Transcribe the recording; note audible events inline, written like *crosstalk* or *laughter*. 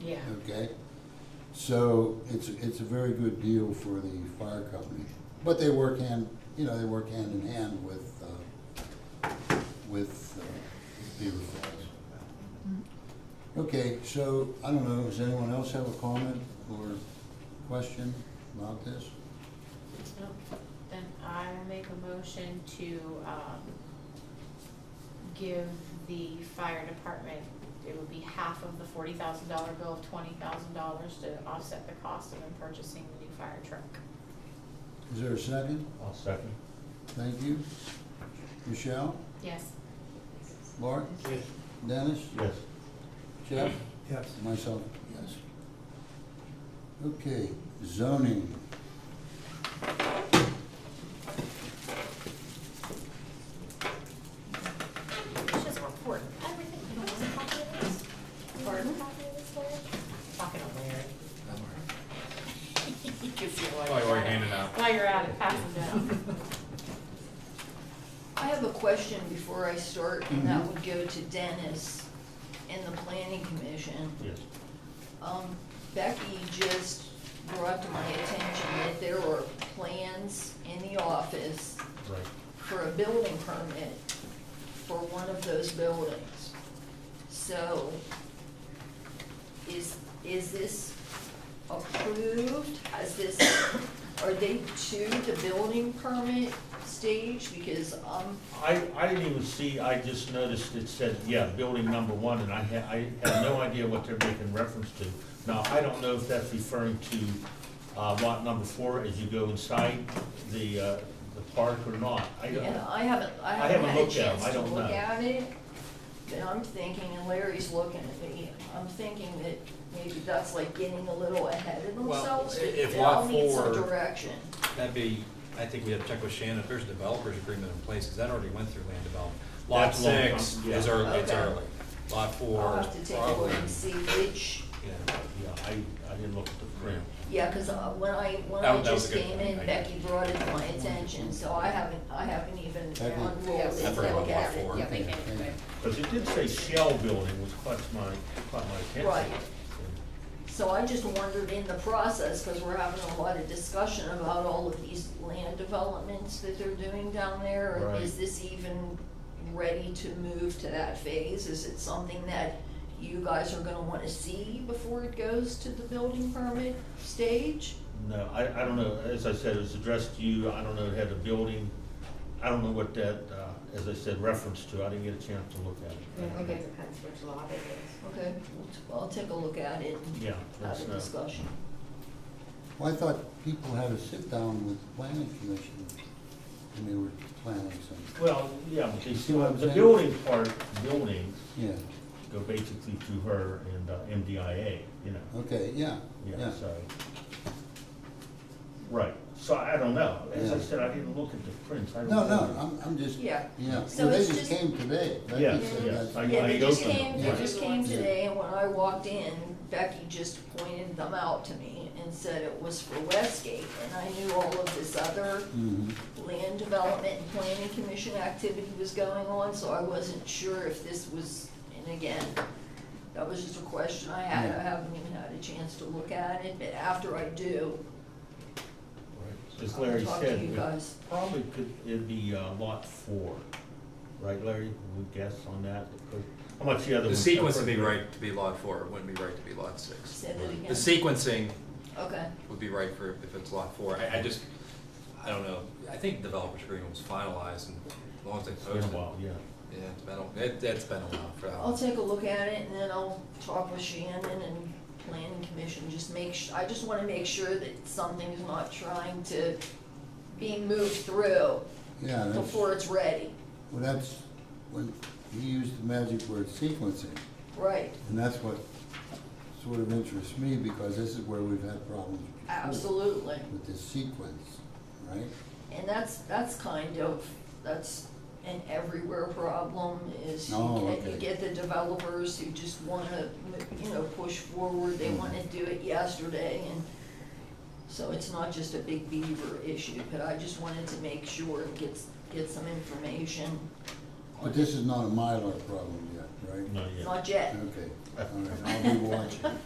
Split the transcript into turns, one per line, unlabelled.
Yeah,
okay? So it's, it's a very good deal for the fire company, but they work hand, you know, they work hand in hand with, uh, with uh, Beaver Falls. Okay, so, I don't know, does anyone else have a comment or question about this?
no, then I will make a motion to, um, give the fire department, it would be half of the forty thousand dollar bill of twenty thousand dollars to offset the cost of them purchasing the new fire truck.
Is there a second?
I'll second.
Thank you. Michelle?
Yes,
Bart?
Yes.
Dennis?
Yes.
Jeff?
Yes.
Myself, yes. Okay, zoning.
it's just report, everything, you don't want a copy of this? Or a copy of this, Larry? Mm-hmm. Pocket on Larry. *laughs* You can see it
While
you're
we're
at it.
handing out.
While you're at it, pass it down.
I have a question before I start, and that
Mhm.
would go to Dennis and the planning commission.
Yes.
Um, Becky just brought to my attention that there are plans in the office
Right.
for a building permit for one of those buildings. So, is, is this approved? Has this, are they to the building permit stage? Because I'm
I, I didn't even see, I just noticed it said, yeah, building number one, and I had, I had no idea what they're making reference to. Now, I don't know if that's referring to uh, lot number four as you go inside the, uh, the park or not. I don't,
Yeah, I haven't, I
I
haven't
haven't
had a
looked at 'em,
chance
I
to
don't
look
know.
at it, but I'm thinking, and Larry's looking at me, I'm thinking that maybe that's like getting a little ahead of
Well,
themselves.
i-
but
if
I'll
lot
need some
four-
direction.
That'd be, I think we have to check with Shannon, if there's a developer's agreement in place, because that already went through land development. Lot
That's a long time,
six
yeah.
is early, it's
Okay.
early. Lot four.
I'll have to
is
take a look
probably,
and see which,
Yeah,
yeah, I, I didn't look at the print.
yeah, because when I, when
That-
I
that was a
just
good
came
point.
in,
I-
Becky brought it to my attention, so I haven't, I haven't even
Okay.
unrolled it,
I
and
forgot about
looked
lot
at
four.
it.
Yeah, we can,
Okay.
Because it did say shell building, which caught my, caught my attention.
Right. So I just wondered in the process, because we're having a lot of discussion about all of these land developments that they're doing down there. and Is
Right.
this even ready to move to that phase? Is it something that you guys are gonna wanna see before it goes to the building permit stage?
No, I, I don't know, as I said, it was addressed to you, I don't know, it had a building, I don't know what that, uh, as I said, reference to, I didn't get a chance to look at
I think
it.
it depends which lot it is.
Okay, we'll t- I'll take a look at it and
Yeah,
have
that's,
a
uh,
discussion.
Well, I thought people had a sit-down with the planning commission when they were planning something.
Well, yeah, but they
See what I'm
still,
saying?
the building part, buildings
Yeah,
go basically to her and uh, MDIA, you know,
okay, yeah,
yeah,
yeah.
so. Right, so I don't know, as I
Yeah.
said, I didn't look at the prints, I don't.
No,
know.
no, I'm, I'm just, yeah,
Yeah.
well,
So
they
it's
just
just-
came today. Becky
Yes,
said
yes,
that's-
I-
Yeah, they just
opened
came,
them,
they
right.
just came
Yeah.
today, and when I walked in, Becky just pointed them out to me and said it was for Westgate, and I knew all of this other
Mhm.
land development and planning commission activity was going on, so I wasn't sure if this was, and again, that was just a question I had, I
Yeah.
haven't even had a chance to look at it, but after I do,
Right. As
I'll
Larry
talk to
said,
you
we
guys.
probably could, it'd be uh, lot four, right, Larry, we guess on that, Because- how much the other
The
ones-
sequence would be right to be lot four, it wouldn't be right to be lot six.
said it again.
The sequencing
Okay,
would be right for, if it's lot four. I, I just, I don't know, I think developer's agreement was finalized and as long as they
It's been a
posted.
while, yeah.
Yeah, it's been, a- it, it's been a while for that.
I'll
one.
take a look at it, and then I'll talk with Shannon and planning commission, just make, su- I just wanna make sure that something's not trying to be moved through
Yeah, that's, well,
before it's ready,
that's, when, he used the magic word sequencing,
right?
and that's what sort of interests me, because this is where we've had problems before.
Absolutely.
With this sequence, right?
And that's, that's kind of, that's an everywhere problem is you
Oh,
get, you
okay.
get the developers who just wanna, you know, push forward,
Mm.
they wanna do it yesterday and so it's not just a big beaver issue, but I just wanted to make sure and get, s- get some information,
But this is not a Mylar problem yet, right?
Not yet.
not yet.
Okay, all right, I'll be watching.